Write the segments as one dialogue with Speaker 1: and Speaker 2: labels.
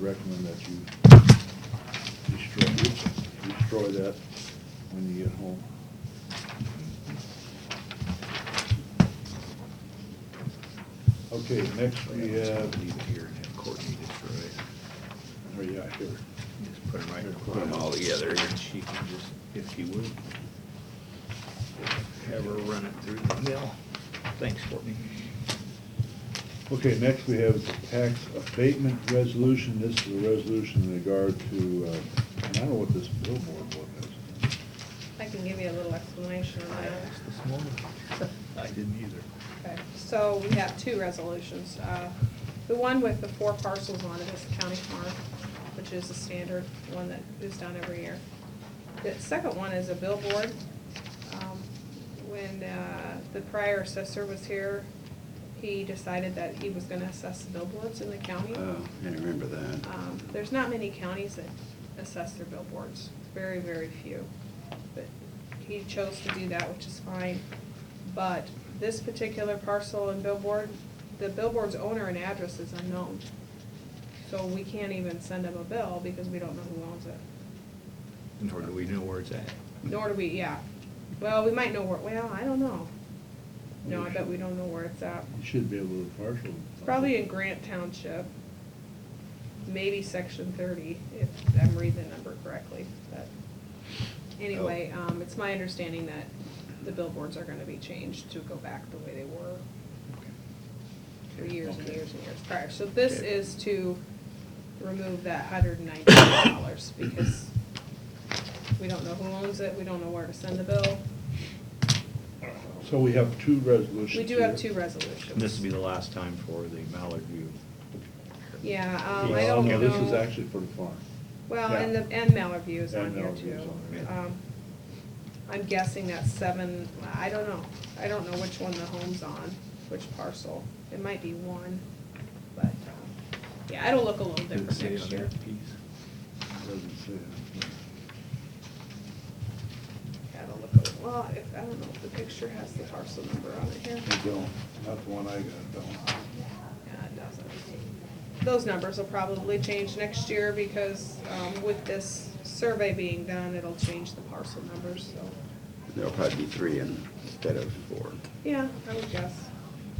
Speaker 1: recommend that you destroy, destroy that when you get home. Okay, next we have,
Speaker 2: Leave it here and have Courtney destroy it.
Speaker 1: oh yeah, here.
Speaker 2: Just put them
Speaker 1: Here,
Speaker 2: right,
Speaker 1: put
Speaker 2: put them
Speaker 1: 'em
Speaker 2: all
Speaker 1: all
Speaker 2: together. And she can just, if she would, have her run it through the mill. Thanks, Courtney.
Speaker 1: Okay, next we have the tax abatement resolution. This is a resolution in regard to, uh, and I don't know what this billboard book is.
Speaker 3: I can give you a little explanation on
Speaker 2: I asked
Speaker 3: that.
Speaker 2: this morning. I didn't either.
Speaker 3: Okay, So we have two resolutions. Uh, The one with the four parcels on it is the county farm, which is the standard one that is done every year. The second one is a billboard. Um, When uh, the prior assessor was here, he decided that he was gonna assess the billboards in the county.
Speaker 4: Oh, I remember that.
Speaker 3: Um, There's not many counties that assess their billboards, very, very few. But he chose to do that, which is fine. But this particular parcel and billboard, the billboard's owner and address is unknown. So we can't even send him a bill because we don't know who owns it.
Speaker 2: Nor do we know where it's at.
Speaker 3: Nor do we, yeah. Well, we might know where, well, I don't know. No, I bet we don't know where it's at.
Speaker 1: You should be able to partial.
Speaker 3: It's probably in Grant Township, maybe section thirty, if I'm reading the number correctly, but. Anyway,
Speaker 1: Oh.
Speaker 3: um, it's my understanding that the billboards are gonna be changed to go back the way they were for years and
Speaker 1: Okay.
Speaker 3: years and years prior. So this
Speaker 2: Okay.
Speaker 3: is to remove that hundred and ninety dollars, because we don't know who owns it, we don't know where to send the bill.
Speaker 1: So we have two resolutions.
Speaker 3: We do have
Speaker 1: here.
Speaker 3: two resolutions.
Speaker 2: This will be the last time for the Mallard View.
Speaker 3: Yeah, um, I
Speaker 1: Well,
Speaker 3: don't know.
Speaker 1: No, this is actually for the farm.
Speaker 3: Well,
Speaker 1: Yeah.
Speaker 3: and the, and Mallard View is on
Speaker 1: And
Speaker 3: here
Speaker 1: Mallard View
Speaker 3: too.
Speaker 1: is on there,
Speaker 2: yeah.
Speaker 3: Um, I'm guessing that's seven, I don't know, I don't know which one the home's on, which parcel, it might be one, but, um, yeah, it'll look a little
Speaker 2: Did it
Speaker 3: different
Speaker 2: say on
Speaker 3: next year.
Speaker 2: that piece?
Speaker 1: Doesn't say.
Speaker 3: Yeah, It'll look a little, well, if, I don't know if the picture has the parcel number on it here,
Speaker 1: They don't, not the one I got, don't.
Speaker 3: yeah, it doesn't. Those numbers will probably change next year because, um, with this survey being done, it'll change the parcel numbers, so,
Speaker 4: There'll probably be three instead of four.
Speaker 3: yeah, I would guess.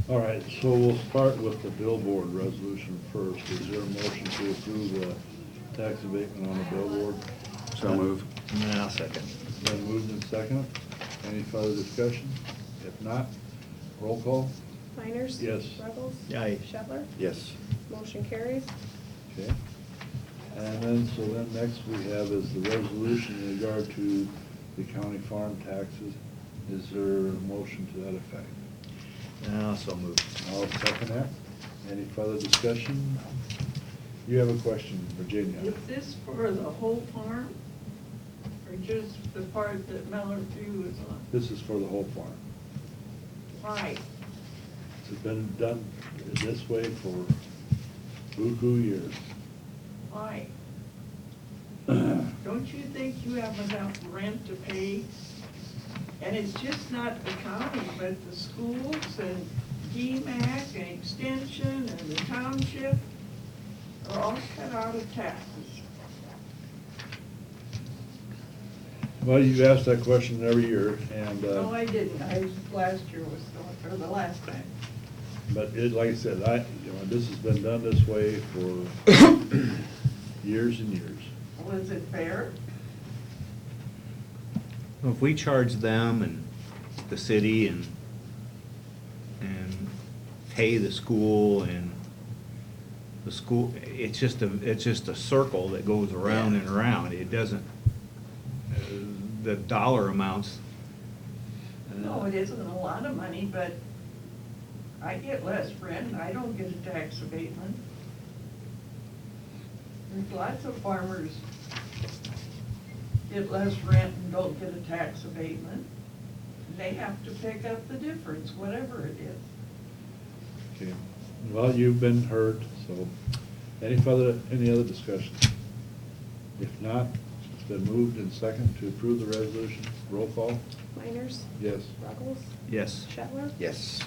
Speaker 1: All right, so we'll start with the billboard resolution first. Is there a motion to approve the tax abatement on the billboard?
Speaker 4: So move.
Speaker 2: No, I'll second.
Speaker 1: Then moved and second. Any further discussion? If not, roll call.
Speaker 3: Miners?
Speaker 1: Yes.
Speaker 3: Ruggles?
Speaker 2: Aye.
Speaker 3: Shetler?
Speaker 4: Yes.
Speaker 3: Motion carries.
Speaker 1: Okay. And then, so then next we have is the resolution in regard to the county farm taxes. Is there a motion to that effect?
Speaker 2: No, so moved.
Speaker 1: I'll second that. Any further discussion? You have a question, Virginia?
Speaker 5: Is this for the whole farm, or just the part that Mallard View is on?
Speaker 1: This is for the whole farm.
Speaker 5: Why?
Speaker 1: It's been done this way for beaucoup years.
Speaker 5: Why? Don't you think you have enough rent to pay? And it's just not the county, but the schools and DMAC and Extension and the township are all cut out of taxes.
Speaker 1: Well, you ask that question every year, and,
Speaker 5: No,
Speaker 1: uh,
Speaker 5: Oh, I didn't, I, last year was, the- or the last time.
Speaker 1: but it, like I said, I, you know, this has been done this way for years and years.
Speaker 5: Was it fair?
Speaker 2: Well, If we charge them and the city and, and pay the school and the school, it's just a, it's just a circle that goes around and around. It doesn't, uh, the dollar amounts. uh,
Speaker 5: No, it isn't a lot of money, but I get less rent, I don't get a tax abatement. There's lots of farmers get less rent and don't get a tax abatement. They have to pick up the difference, whatever it is.
Speaker 1: Okay. Well, you've been heard, so any further, any other discussion? If not, it's been moved and second to approve the resolution. Roll call?
Speaker 3: Miners?
Speaker 1: Yes.
Speaker 3: Ruggles?
Speaker 2: Yes.
Speaker 3: Shetler?
Speaker 4: Yes.